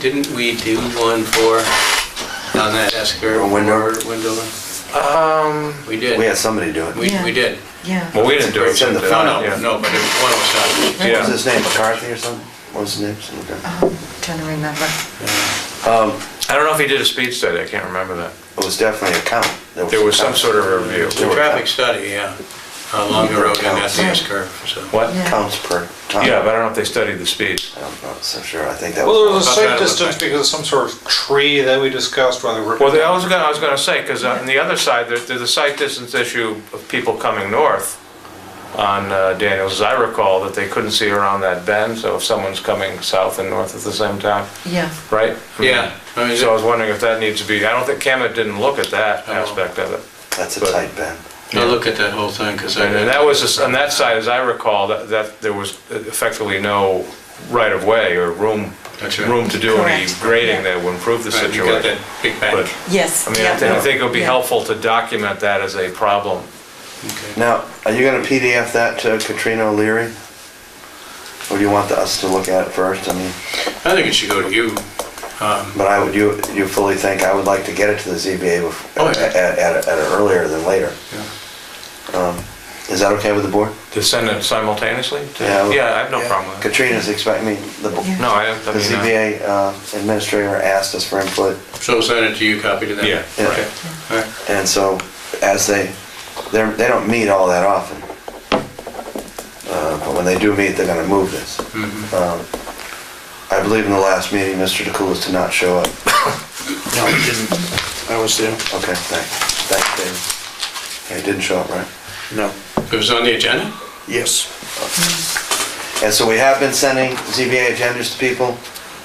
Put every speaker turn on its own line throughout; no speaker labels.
didn't we do one for, on that Esker?
On Windover?
Windover?
Um,
We did.
We had somebody do it.
We, we did.
Yeah.
Well, we didn't do it.
It's in the
but-
No,
file.
yeah.
no, no, but it was one was done.
What was
Yeah,
his name, McCarthy or something? What was his name? Some guy.
Um, Trying to remember.
Um,
I don't know if he did a speed study, I can't remember that.
It was definitely a count.
There was some
count.
sort of review.
There
The
were
traffic
counts.
study, yeah, along the road and at the
Yeah.
S-curve, so.
What?
Yeah.
Counts per time.
Yeah, but I don't know if they studied the speeds.
I'm not so sure, I think that
well, there was
was,
a
Not
site
that it was
distance
like-
because of some sort of tree that we discussed while they were.
Well, they- I was gonna, I was gonna say, because on the other side, there's, there's a sight distance issue of people coming north on uh, Daniels, as I recall, that they couldn't see around that bend, so if someone's coming south and north at the same time,
Yeah.
right?
Yeah, I mean,
So I was wondering if that needs to be, I don't think Camet didn't look at that
Oh.
aspect of it.
that's a
but-
tight bend.
I look at that whole thing, because I.
And and that was, just- on that side, as I recall, that, that there was effectively no right-of-way or room,
That's right.
room to do any
Correct.
grading
Yeah.
that would improve the
Right, You got
situation.
that big bank.
But,
Yes.
I mean, I
yeah.
thi- I think it would be
Yeah.
helpful to document that as a problem.
Okay.
Now, are you gonna PDF that to Katrina O'Leary? Or do you want us to look at it first? I mean,
I think it should go to you. Um,
but I would, you, you fully think, I would like to get it to the ZBA bef-
Oh,
at,
yeah.
at, at at an earlier than later.
yeah.
Um, Is that okay with the board?
To send it simultaneously? to-
Yeah.
Yeah, I have no problem with it.
Katrina's expecting, I mean, the, bo-
Yeah.
No, I have,
the
I mean, uh,
ZBA uh, administrator asked us for input,
So send it to you, copy to them.
yeah,
Yeah.
right.
All right.
and so as they, they're, they don't meet all that often. Uh, But when they do meet, they're gonna move this.
Mhm.
Mm-hmm.
Um, I believe in the last meeting, Mr. DeCoulis did not show up.
No, it didn't. I was there.
Okay, thanks, thanks, David. Yeah, He didn't show up, right?
No.
It was on the agenda?
Yes.
And so we have been sending ZBA agendas to people.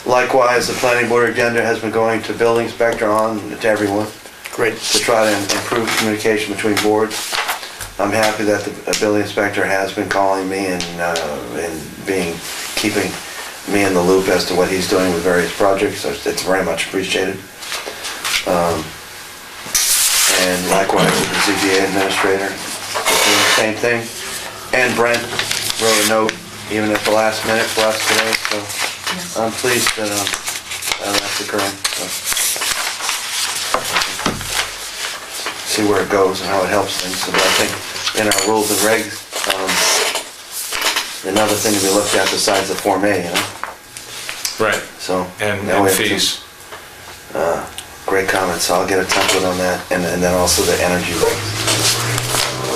Likewise, the planning board agenda has been going to building inspector on to everyone
Great.
to try to improve communication between boards. I'm happy that the building inspector has been calling me and, uh, and being, keeping me in the loop as to what he's doing with various projects, so it's very much appreciated. Um, And likewise, the ZBA administrator, is doing the same thing. And Brent wrote a note, even at the last minute for us today, so I'm pleased that, um, uh, that's occurring, so. See where it goes and how it helps things, but I think in our rules and regs, um, another thing to be looked at besides the Form A, you know,
Right,
so.
and
now we
and
have to-
fees.
Great comments, so I'll get a template on that, and, and then also the energy regs.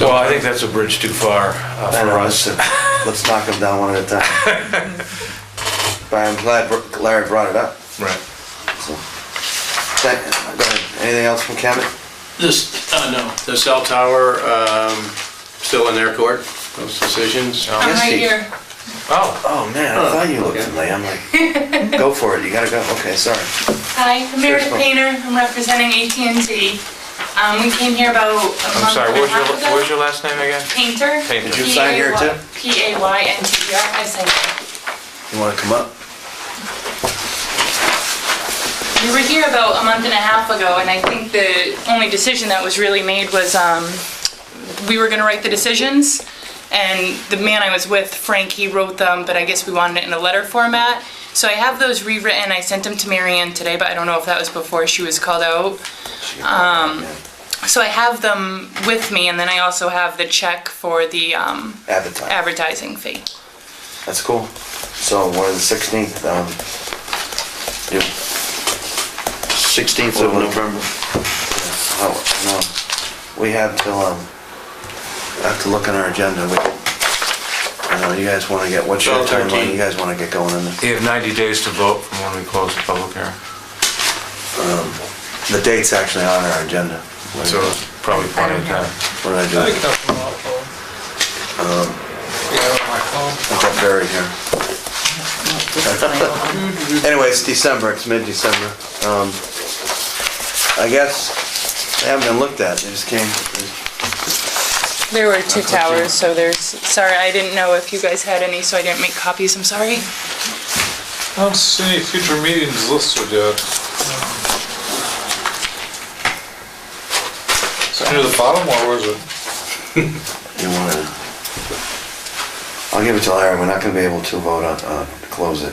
Well, I think that's a bridge too far uh,
I
for
know,
us.
listen, Let's knock them down one at a time. But I'm glad Br- Larry brought it up,
Right.
so. Thank- Go ahead, anything else from Kemet?
This, uh, no, the cell tower, um, still in their court, those decisions.
No.
Yes, Steve.
Oh,
Oh, man, I thought you looked
Okay.
at me, I'm like, go for it, you gotta go, okay, sorry.
Hi, I'm Meredith
Sure.
Painter, I'm representing AT&T. Um, we came here about a
I'm
month
sorry,
and
what was
a
your,
Um,
half ago.
what was your last name again?
Painter.
Painter. Did
you sign here too?
P-A-Y-N-T-E-R, I signed here.
You wanna come up?
We were here about a month and a half ago, and I think the only decision that was really made was, um, we were gonna write the decisions, and the man I was with, Frank, he wrote them, but I guess we wanted it in a letter format. So I have those rewritten, I sent them to Marianne today, but I don't know if that was before she was called out.
Um.
So I have them with me, and then I also have the check for the um,
Advertise,
advertising fee.
that's cool. So, what is the sixteenth, um, you,
16th of November.
oh, no, we have till, um, I have to look on our agenda, we, I know, you guys wanna get, what's your
Twelve,
timeline, you
thirteen.
guys wanna get going on this?
You have 90 days to vote from when we close the public hearing.
The date's actually on our agenda. What
So probably plenty of time.
what did
I
I do?
think that's my phone. Yeah, my phone.
I've got buried here. Anyway, it's December, it's mid-December. Um, I guess, they haven't been looked at, they just came,
There were two towers, so there's, sorry, I didn't know if you guys had any, so I didn't make copies, I'm sorry.
I don't see any future meetings listed uh, um, yet. Is it near the bottom or was it?
You wanna? I'll give it to Larry, we're not gonna be able to vote on, uh, to close it.